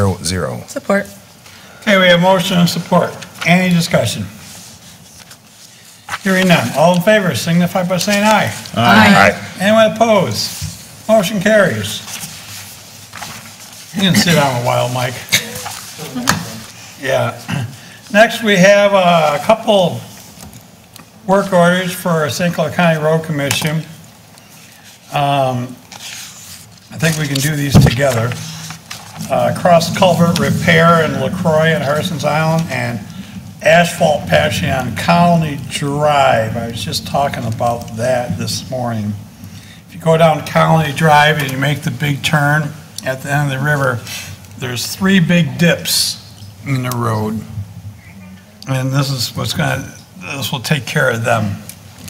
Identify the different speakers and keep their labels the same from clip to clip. Speaker 1: zero zero.
Speaker 2: Support.
Speaker 3: Okay, we have motion and support. Any discussion? Hearing none. All in favor signify by saying aye.
Speaker 1: Aye.
Speaker 3: Anyone opposed? Motion carries. You can sit down a while, Mike. Yeah. Next, we have uh, a couple work orders for St. Clair County Road Commission. Um, I think we can do these together. Uh, Cross culvert repair in Lacroix and Harrison's Island, and asphalt patching on Colony Drive. I was just talking about that this morning. If you go down Colony Drive and you make the big turn at the end of the river, there's three big dips in the road. And this is what's gonna, this will take care of them,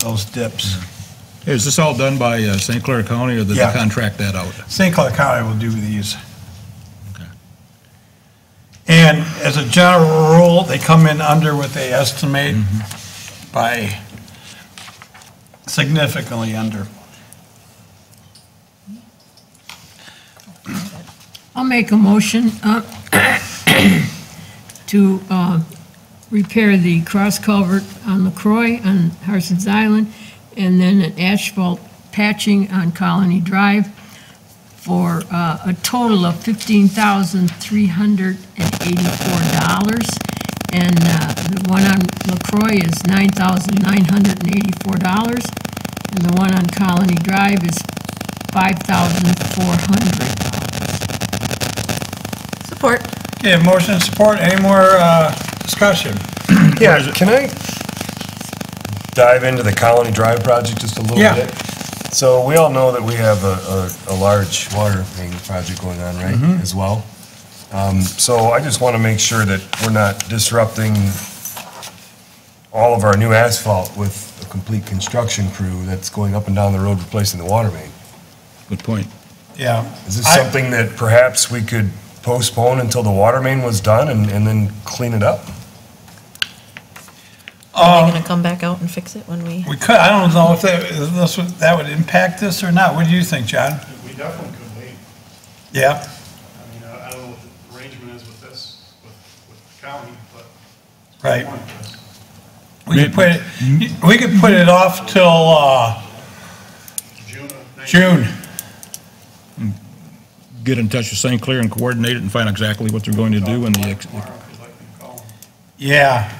Speaker 3: those dips.
Speaker 4: Is this all done by uh, St. Clair County, or did they
Speaker 3: Yeah.
Speaker 4: contract that out?
Speaker 3: St. Clair County will do these. And as a general rule, they come in under what they estimate by significantly under.
Speaker 5: I'll make a motion uh, to uh, repair the cross culvert on LaCroix on Harson's Island, and then an asphalt patching on Colony Drive for uh, a total of $15,384. And uh, the one on LaCroix is $9,984, and the one on Colony Drive is $5,400.
Speaker 2: Support.
Speaker 3: Okay, motion and support, any more uh, discussion?
Speaker 1: Yeah, can I dive into the Colony Drive project just a little
Speaker 3: Yeah.
Speaker 1: bit? So we all know that we have a, a, a large water main project going on, right, as well? Um, so I just want to make sure that we're not disrupting all of our new asphalt with a complete construction crew that's going up and down the road replacing the water main.
Speaker 4: Good point.
Speaker 3: Yeah.
Speaker 1: Is this
Speaker 3: I-
Speaker 1: something that perhaps we could postpone until the water main was done and, and then clean it up?
Speaker 2: Are they going to come back out and fix it when we?
Speaker 3: We could, I don't know if that, if this would- that would impact this or not, what do you think, John?
Speaker 6: We definitely could wait.
Speaker 3: Yeah,
Speaker 6: I mean, I I don't know what the arrangement is with this, with, with the county, but. it's
Speaker 3: Right.
Speaker 6: one uh, of us.
Speaker 3: we could put it, we could put it off till uh,
Speaker 6: June of next
Speaker 3: June.
Speaker 4: Get in touch with St. Clair and coordinate it and find exactly what they're going to do and the, ex-
Speaker 6: Tomorrow, if you'd like me to call.
Speaker 3: Yeah,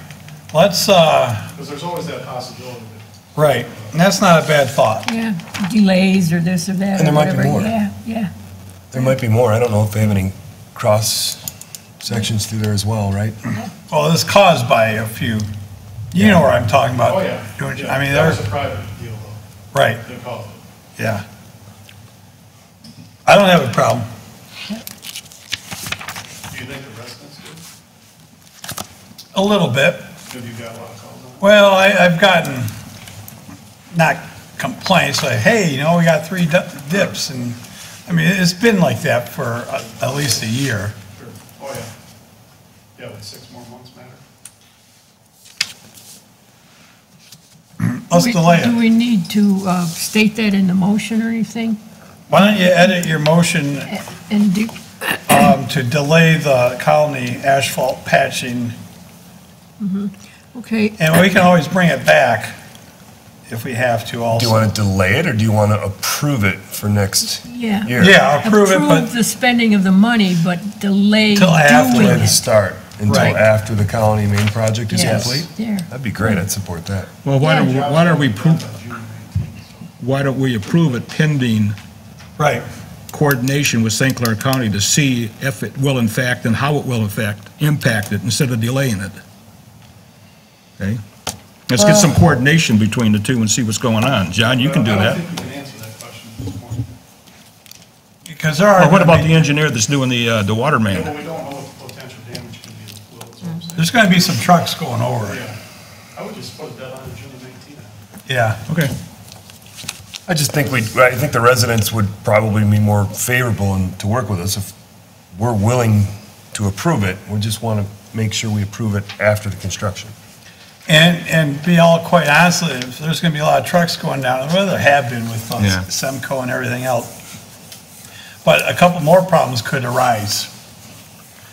Speaker 3: let's, uh,
Speaker 6: Because there's always that possibility that
Speaker 3: right, And that's not a bad thought.
Speaker 5: Yeah, delays or this or that.
Speaker 1: And there
Speaker 5: or
Speaker 1: might be
Speaker 5: whatever.
Speaker 1: more.
Speaker 5: Yeah, yeah.
Speaker 1: There might be more. I don't know if they have any cross sections through there as well, right?
Speaker 3: Well, it's caused by a few, you know where I'm talking about.
Speaker 6: Oh, yeah.
Speaker 3: don't you?
Speaker 6: Yeah,
Speaker 3: I mean,
Speaker 6: That
Speaker 3: there's,
Speaker 6: was a private deal, though,
Speaker 3: right,
Speaker 6: they called it.
Speaker 3: yeah. I don't have a problem.
Speaker 6: Do you think the residents do?
Speaker 3: A little bit.
Speaker 6: Have you got a lot of calls on
Speaker 3: Well, I, I've gotten, not complaints, like, hey, you know, we got three di- dips, and, I mean, it's been like that for a- at least a year.
Speaker 6: it? Sure. Oh, yeah. Yeah, but six more months matter.
Speaker 3: Let's
Speaker 5: We-
Speaker 3: delay
Speaker 5: Do
Speaker 3: it.
Speaker 5: we need to uh, state that in the motion or anything?
Speaker 3: Why don't you edit your motion
Speaker 5: A- And do,
Speaker 3: um, to delay the colony asphalt patching,
Speaker 5: okay,
Speaker 3: and we can always bring it back if we have to
Speaker 1: Do you
Speaker 3: also.
Speaker 1: want to delay it or do you want to approve it for next
Speaker 5: yeah.
Speaker 1: year?
Speaker 3: Yeah, approve it,
Speaker 5: Approve
Speaker 3: but,
Speaker 5: the spending of the money, but delay
Speaker 3: Till
Speaker 5: doing
Speaker 3: after
Speaker 1: Delay the
Speaker 5: it.
Speaker 1: start until
Speaker 3: Right.
Speaker 1: after the colony main project is
Speaker 5: Yes,
Speaker 1: complete?
Speaker 5: there.
Speaker 1: That'd be great. I'd support that.
Speaker 4: well, why don't, why don't we, pro-
Speaker 6: By June nineteenth, so.
Speaker 4: why don't we approve it pending
Speaker 3: right,
Speaker 4: coordination with St. Clair County to see if it will in fact and how it will affect, impact it instead of delaying it? Okay? Let's get some coordination between the two and see what's going on. John, you can do
Speaker 6: I don't
Speaker 4: that.
Speaker 6: think we can answer that question at this point.
Speaker 3: because there are.
Speaker 4: Or what about the engineer that's doing the, uh, the water
Speaker 6: Yeah,
Speaker 4: main?
Speaker 6: but we don't know what the potential damage could be to the flow, that's what I'm saying.
Speaker 3: There's gonna be some trucks going over it,
Speaker 6: Yeah, I would just put that on June nineteenth.
Speaker 3: yeah.
Speaker 4: Okay.
Speaker 1: I just think we, I think the residents would probably be more favorable and to work with us if we're willing to approve it. We just want to make sure we approve it after the construction.
Speaker 3: And, and be all quite honestly, if there's gonna be a lot of trucks going down, well, there have been with uh,
Speaker 4: Yeah.
Speaker 3: Semco and everything else. But a couple more problems could arise.